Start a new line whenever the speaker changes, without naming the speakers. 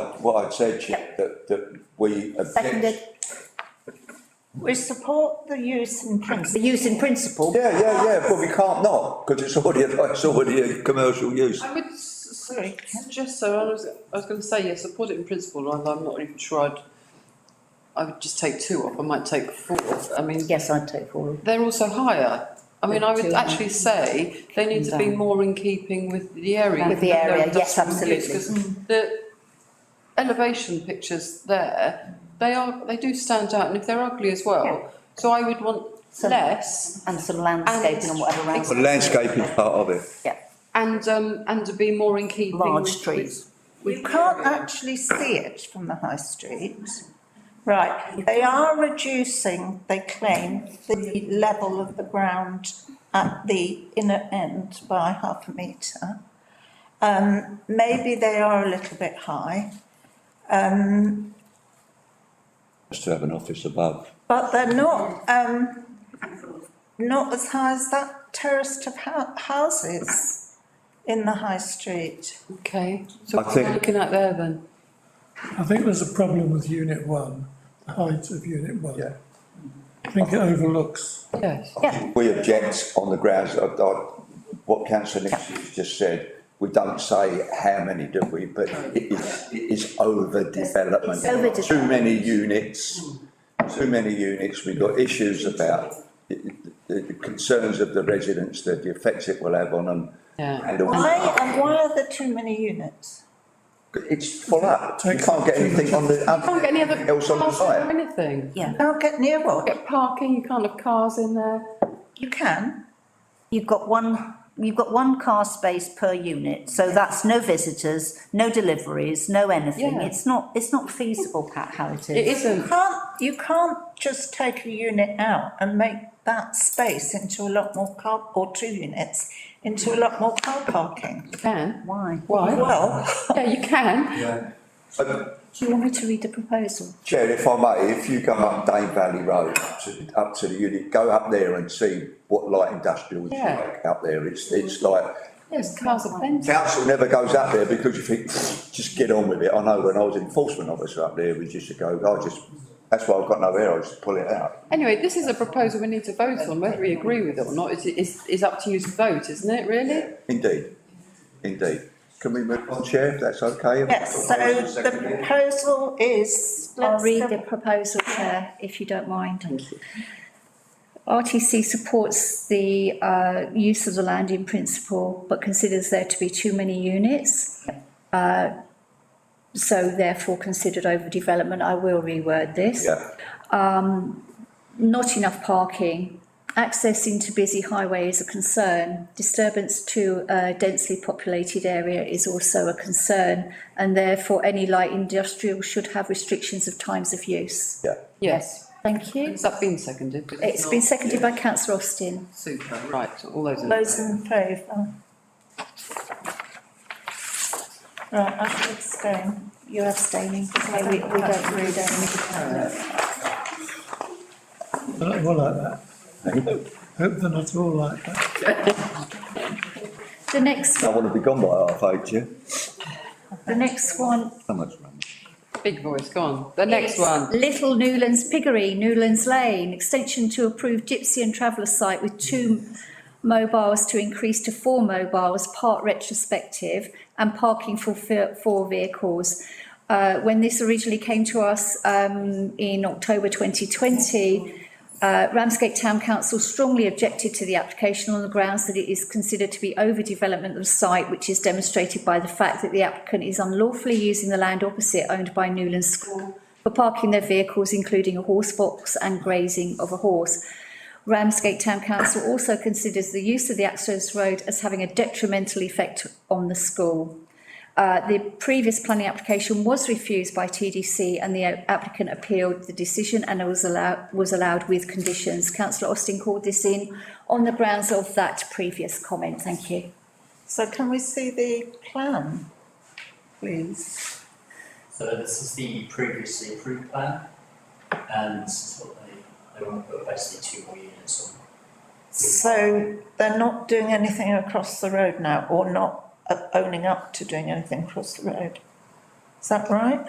I- What I'd said, Chair, that, that we
Seconded.
object.
We support the use in
The
principle.
use in principle.
Yeah, yeah, yeah, but we can't not, because it's already, a- it's already a commercial use.
I would s- suggest so, I was, I was gonna say, yeah, support it in principle, rather, I'm not even sure I'd, I would just take two off, I might take four, I mean,
Yes, I'd take forward.
they're also higher. I mean, I
Two
would
and
actually say they need to be
down.
more in keeping with the area.
With the
and their
area, yes,
industrial use, 'cause The elevation pictures there, they are, they do stand out, and if they're ugly as well, so I would want
So-
less
And some landscaping and whatever else.
But landscape is part of it.
Yeah,
and, um, and to be more in keeping.
large
with-
trees.
You can't actually see it from the high street. Right, they are reducing, they claim, the level of the ground at the inner end by half a metre. Um, maybe they are a little bit high,
Has to have an office above.
but they're not, um, not as high as that terraced of hou- houses in the high street.
Okay, so
I
what are we
think-
looking at there then?
I think there's a problem with unit one, the height of unit one.
Yeah.
I think it overlooks,
Yes,
Yeah.
We object on the grounds of, of what councillor Nixon's just said. We don't say how many do we, but it is, it is overdevelopment.
It's overdevelopment.
Too many units, too many units. We've got issues about the, the- the concerns of the residents, the the effects it will have on them.
Yeah.
And all-
Why, and why are there too many units?
It's full up. You can't get anything on the,
Can't get any other
else
cars
on the
or
site.
anything.
Yeah.
Can't get near one.
Get parking, you can't have cars in there.
You can.
You've got one, you've got one car space per unit, so that's no visitors, no deliveries, no anything.
Yeah.
It's not, it's not feasible, Pat, how it
It
is.
You
isn't.
can't, you can't just take a unit out and make that space into a lot more car, or two units, into a lot more car parking.
You can.
Why?
Why?
Well,
Yeah, you can.
But
Do you want me to read the proposal?
Chair, if I may, if you go up Dane Valley Road, up to, up to the unit, go up there and see what light industrial is
Yeah.
like up there. It's, it's like,
Yes, cars are plenty.
council never goes up there because you think, just get on with it. I know when I was enforcement officer up there, we used to go, I just, that's why I've got no hair, I just pull it out.
Anyway, this is a proposal we need to vote on, whether we agree with it or not is, is, is up to you to vote, isn't it, really?
Indeed, indeed. Can we move on, Chair, if that's okay?
yes, so the proposal is.
I'll
let's um,
read
go-
the proposal, Chair, if you don't mind. Thank you. RTC supports the uh, use of the land in principle, but considers there to be too many units. Uh, So therefore considered overdevelopment. I will reword this.
Yeah,
Not enough parking. Access into busy highway is a concern. Disturbance to a densely populated area is also a concern. And therefore, any light industrial should have restrictions of times of use.
yeah.
Yes.
Thank you.
Has that been seconded? Because
It's
not-
been seconded by councillor Austin.
Super, right, all those in.
Those in favour? Right, I abstain.
You're abstaining. Okay, we, we don't, we don't.
they're not all like that. Hope they're not all like that.
The next,
I want to be gone by half eight, Chair.
the next one.
Someone's running.
Big voice, go on. The next
is
one.
Little Newlands Piggery, Newlands Lane, extension to approved gypsy and traveller site with two mobiles to increase to four mobiles, part retrospective and parking for fi- four vehicles. Uh, when this originally came to us, um, in October twenty twenty, Uh, Ramsgate Town Council strongly objected to the application on the grounds that it is considered to be overdevelopment of the site, which is demonstrated by the fact that the applicant is unlawfully using the land opposite owned by Newlands School for parking their vehicles, including a horse box and grazing of a horse. Ramsgate Town Council also considers the use of the access road as having a detrimental effect on the school. Uh, the previous planning application was refused by TDC and the uh, applicant appealed the decision and it was allowed, was allowed with conditions. Councillor Austin called this in on the grounds of that previous comment. Thank you.
So can we see the plan, please?
So this is the previously approved plan, and this is what they, they want to put basically two more units on.
So they're not doing anything across the road now, or not uh, owning up to doing anything across the road? Is that right?